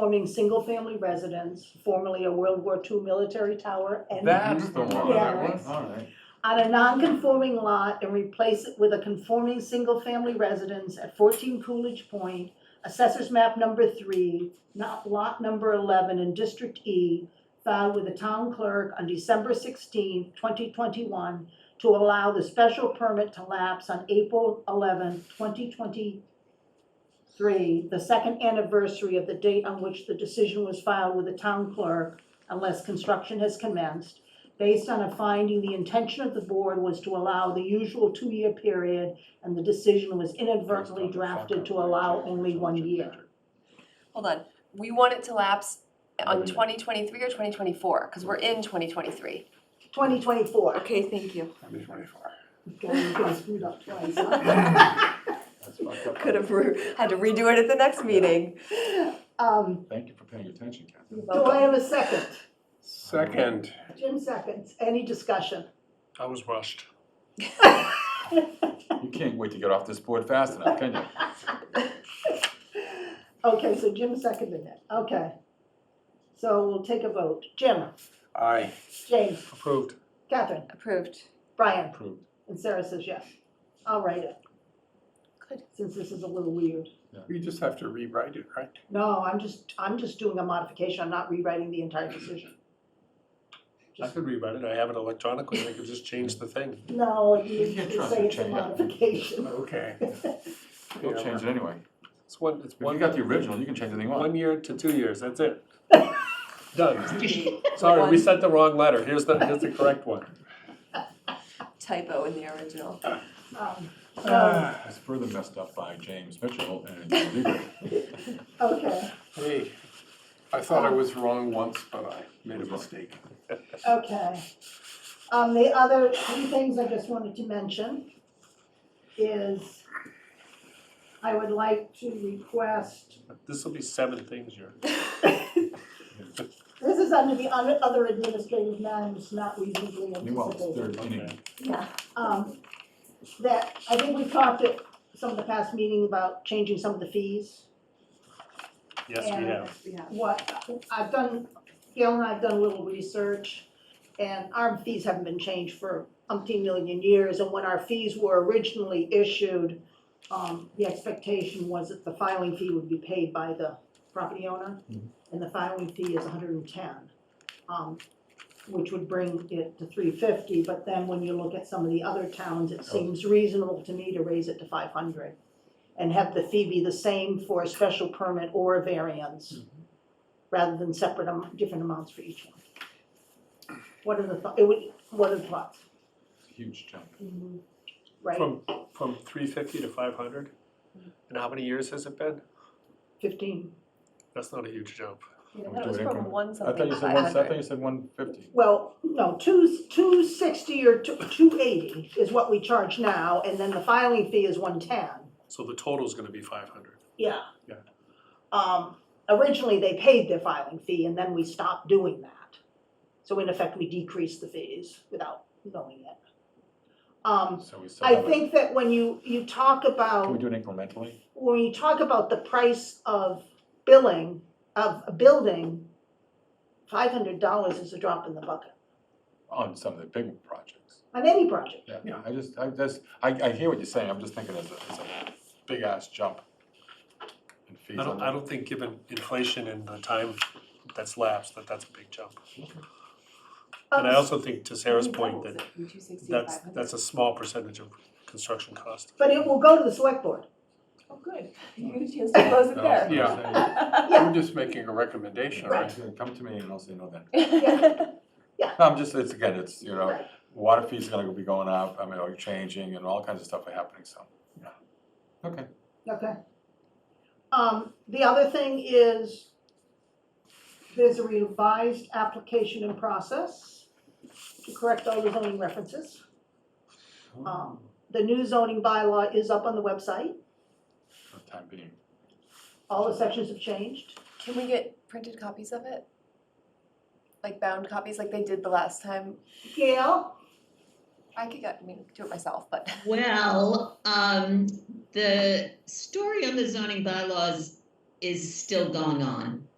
forming single-family residence, formerly a World War II military tower, and That's the one, Yeah. that was, Alright, on a non-conforming lot and replace it with a conforming single-family residence at fourteen Coolidge Point, assessors map number three, not lot number eleven in District E, filed with the town clerk on December sixteenth, twenty twenty-one, to allow the special permit to lapse on April eleventh, twenty twenty-three, the second anniversary of the date on which the decision was filed with the town clerk, unless construction has commenced, based on a finding, the intention of the board was to allow the usual two-year period, and the decision was inadvertently drafted to allow only one year. Hold on, we want it to lapse on Wait. twenty twenty-three or twenty twenty-four, because we're in twenty twenty-three. Twenty twenty-four. Okay, thank you. that'd be twenty-four. screwed up twice, huh? that's fucked up. Could have re- had to redo it at the next meeting. Um, Thank you for paying attention, Catherine. do uh, I have a second? Second, Jim seconds. Any discussion? I was rushed. You can't wait to get off this board fast enough, can you? Okay, so Jim seconded it. Okay. So we'll take a vote. Jim, aye. James, Approved. Catherine, Approved. Brian, Approved. and Sarah says yes. I'll write it. Good. Since this is a little weird. We just have to rewrite it, right? No, I'm just, I'm just doing a modification, I'm not rewriting the entire decision. I Just- could rewrite it. I have it electronically. I could just change the thing. No, you You can't you trust say the it's a chain. modification. Okay. We'll Yeah. change it anyway. It's one, it's If you one, got the original, you can change anything you want. one year to two years. That's it. Done. Sorry, we One sent the wrong letter. Here's the, here's the correct one. Typo in the original. Um, so, Ah, It's further messed up by James Mitchell and John Lieber. Okay, Hey, I thought I was wrong once, but I made a mistake. okay. Um, the other three things I just wanted to mention is I would like to request, This will be seven things you're. this is under the un- other administrative matters not reasonably You want anticipated. third inning. Yeah. um, that, I think we talked at some of the past meeting about changing some of the fees. Yes, we have. Yeah. What, I've done, Gail and I have done a little research, and our fees haven't been changed for umpteen million years, and when our fees were originally issued, um, the expectation was that the filing fee would be paid by the property owner, Mhm. and the filing fee is hundred and ten. Um, which would bring it to three fifty, but then when you look at some of the other towns, it seems reasonable to me to raise it to five hundred. And have the fee be the same for a special permit or a variance, rather than separate, am- different amounts for each one. What are the, thou- it would, what are the thoughts, Huge jump. right, From, from three fifty to five hundred. And how many years has it been? fifteen? That's not a huge jump. Yeah, we that do was it from increment? one I thought something you to said five one, I thought hundred. you said one fifty. Well, no, two, two sixty or two, two eighty is what we charge now, and then the filing fee is one ten. So the total's gonna be five hundred. Yeah. Yeah. Um, originally, they paid their filing fee, and then we stopped doing that. So in effect, we decreased the fees without knowing it. Um, So we set I up a- think that when you, you talk Can we about, do it incrementally? when you talk about the price of billing, of a building, five hundred dollars is a drop in the bucket on some of the big projects. on any project. Yeah, I just, I just, I, I hear what you're saying, I'm just thinking it's a, it's a big ass jump in fees. I don't, on I don't think given inflation and the time that's lapsed, that that's a big jump. And I Um, also think to Sarah's point that Two sixty to that's, five hundred. that's a small percentage of construction cost. But it will go to the select board. Oh, good. You get a chance to close it No, there. Yeah. I'm just making a recommendation, that. right? Right, Come to me and I'll say no then. Yeah. No, I'm just, it's again, it's, you know, Right. water fees are gonna be going up, I mean, or changing and all kinds of stuff are happening, so, yeah. Okay, Okay. Um, the other thing is, there's a revised application and process to correct all the zoning references. Um, the new zoning bylaw is up on the website, for the time being. all the sections have changed. Can we get printed copies of it? Like bound copies, like they did the last time? Gail, I could get, I mean, do it myself, but Well, um, the story on the zoning bylaws is still going on.